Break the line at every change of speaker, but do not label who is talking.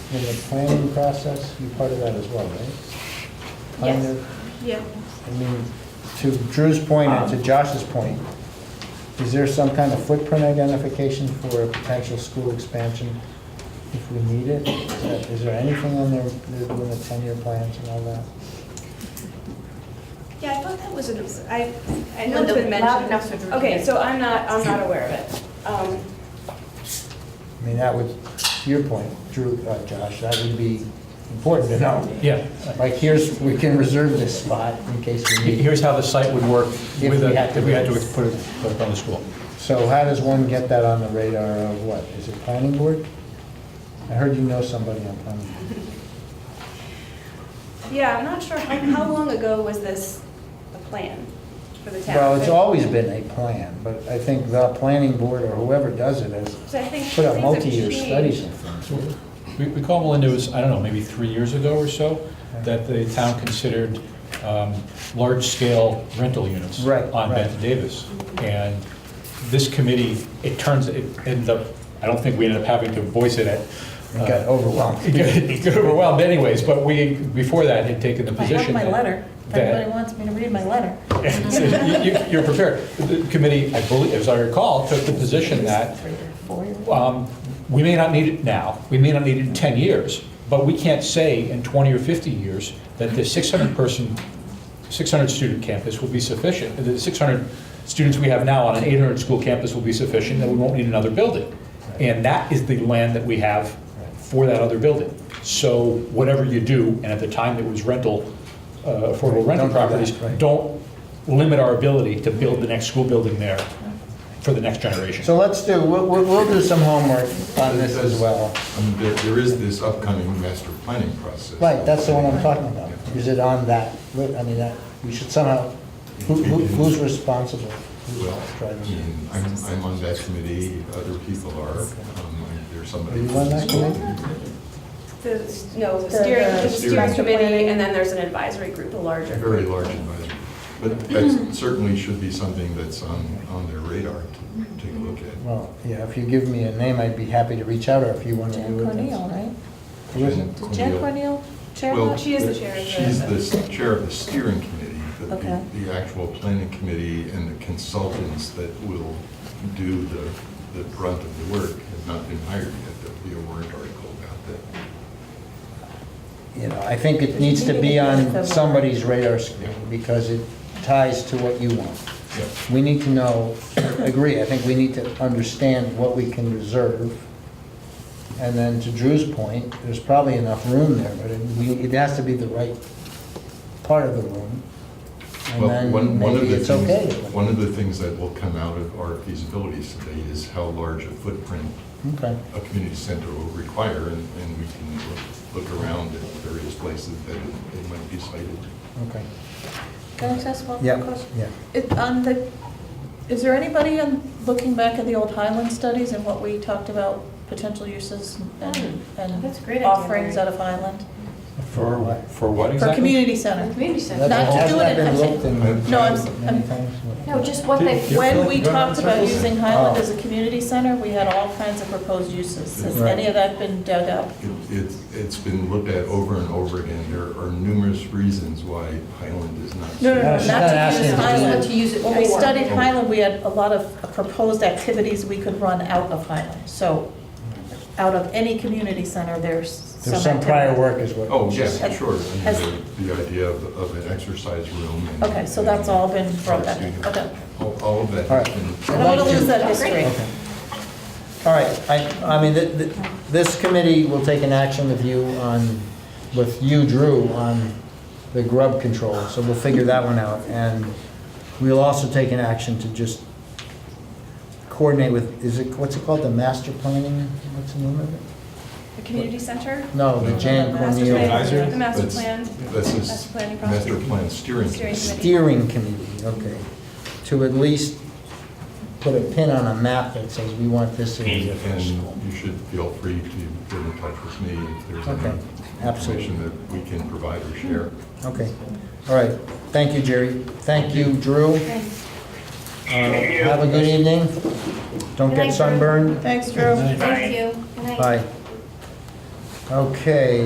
in the planning process, you're part of that as well, right? Kind
Yes.
of.
Yep.
I mean, to Drew's point and to Josh's point, is there some kind of footprint identification for a potential school expansion if we need it? Is that- Is there anything on there, in the ten-year plans and all that?
Yeah, I thought that was, an- I, I
No,
know it's
no,
been
loud
mentioned.
enough so Drew can
Okay,
hear.
so I'm not, I'm not aware of it. Um,
I mean, that would, to your point, Drew, uh, Josh, that would be important to know.
Yeah.
Like, here's, we can reserve this spot in case we need. it.
Here's how the site would work
If
with,
we had
a-
to
if we had
do
to
it.
put it, put it on the school.
So how does one get that on the radar of what? Is it planning board? I heard you know somebody on planning. board.
Yeah, I'm not sure, how, how long ago was this a plan for the town?
Well, it's always been a plan, but I think the planning board or whoever does it has
So I think
put out
things have
multi-year
changed.
studies and things.
We we call Melinda, it was, I don't know, maybe three years ago or so, that the town considered um, large-scale rental units.
Right,
On
right.
Bette Davis. And this committee, it turns, it ended up, I don't think we ended up having to voice it at. uh,
It got overwhelmed.
It got- It got overwhelmed anyways, but we, before that, had taken the
I have
position.
my
that-
letter. If
that-
anybody wants me to read my letter.
So you- you- You're prepared. The committee, I believe, as I recall, took the position that
Three or four years.
um, we may not need it now, we may not need it in 10 years, but we can't say in 20 or 50 years that the 600-person, 600-student campus will be sufficient, the 600 students we have now on an 800-school campus will be sufficient, that we won't need another building. And that is the land that we have for that other building. So whatever you do, and at the time it was rental, uh, affordable
Don't
rental
do that,
properties,
right.
don't limit our ability to build the next school building there for the next generation.
So let's do, we'll, we'll we'll do some homework on this as well.
I mean, there, there is this upcoming master planning process.
Right, that's the one I'm talking about. Is it on that, li- I mean, that, we should somehow, who, who- who's responsible? Who's
Well, I
driving it?
mean, I'm, I'm on that committee, other people are, um, there's
Are
somebody.
you on that committee?
The s- no, the
The-
steering,
the
the steering
Steering.
committee, and then there's an advisory group, a larger group.
Very large advisory. But that certainly should be something that's on, on their radar to take a look at.
Well, yeah, if you give me a name, I'd be happy to reach out, or if you want to
Jack
do it.
Cornell, right?
Who is it?
Did Jack Cornell chair
Well,
that?
She is the chair of the-
She's the s- chair of the steering committee, but
Okay.
the, the actual planning committee and the consultants that will do the, the brunt of the work have not been hired yet. There'll be a warrant article about that.
You know, I think it needs to be on somebody's radar screen, because it ties to what you want.
Yep.
We need to know, agree, I think we need to understand what we can reserve. And then to Drew's point, there's probably enough room there, but it, we- it has to be the right part of the room. And
Well, one,
then
one of
maybe
the
it's okay.
things, one of the things that will come out of our feasibility study is how large a footprint
Okay,
a community center will require, and, and we can look, look around at various places that it it might be cited.
okay.
Can I just ask one
Yeah,
quick question?
yeah.
It- On the, is there anybody on, looking back at the old Highland studies and what we talked about, potential uses and, and
Oh, That's a great idea,
offerings out
Mary.
of Highland?
For what?
For what
For
exactly?
community
The
center?
community
That's-
center.
Not to
hasn't
do
that
it in-
been
I'm saying-
looked in
No, I'm,
Many
I'm,
times.
No, just what they,
Yeah.
when we
Go around
talked
in
about
circles.
using Highland
Oh.
as a community center, we had all kinds of proposed uses. Has
Right.
any of that been dug up?
It- It's, it's been looked at over and over again. There are numerous reasons why Highland is not.
No, no,
No,
no,
she's
not
not
to
asking
use
if it's
Highland.
used. What to use it
When we
for.
studied Highland, we had a lot of proposed activities we could run out of Highland. So out of any community center, there's some
There's some prior
activity.
work is what.
Oh, yes,
Has-
sure. I mean,
has-
The the idea of, of an exercise room. and-
Okay, so that's all been brought back,
and-
okay.
All all of that
All right.
has been.
I don't want to lose that
Great.
history.
Okay. All right, I, I mean, th- th- this committee will take an action with you on, with you, Drew, on the grub control, so we'll figure that one out. And we'll also take an action to just coordinate with, is it, what's it called, the master planning? What's the name of it?
The community center?
No, the Jan
Master
Corneal
plan,
Advisory?
the master
That's-
plan.
That's
Master
this
planning process.
master plan steering
Steering
committee.
Steering Committee, okay. To at least put a pin on a map that says we want this
Mm.
in.
And you should feel free to get in touch with me if there's
Okay,
any
absolutely.
information that we can provide or share.
Okay, all right. Thank you, Jerry. Thank you, Drew. Uh, Have a good evening. Don't
Good night,
get
Drew.
sunburned.
Thanks, Drew.
Thank you. Good night.
Bye. Okay,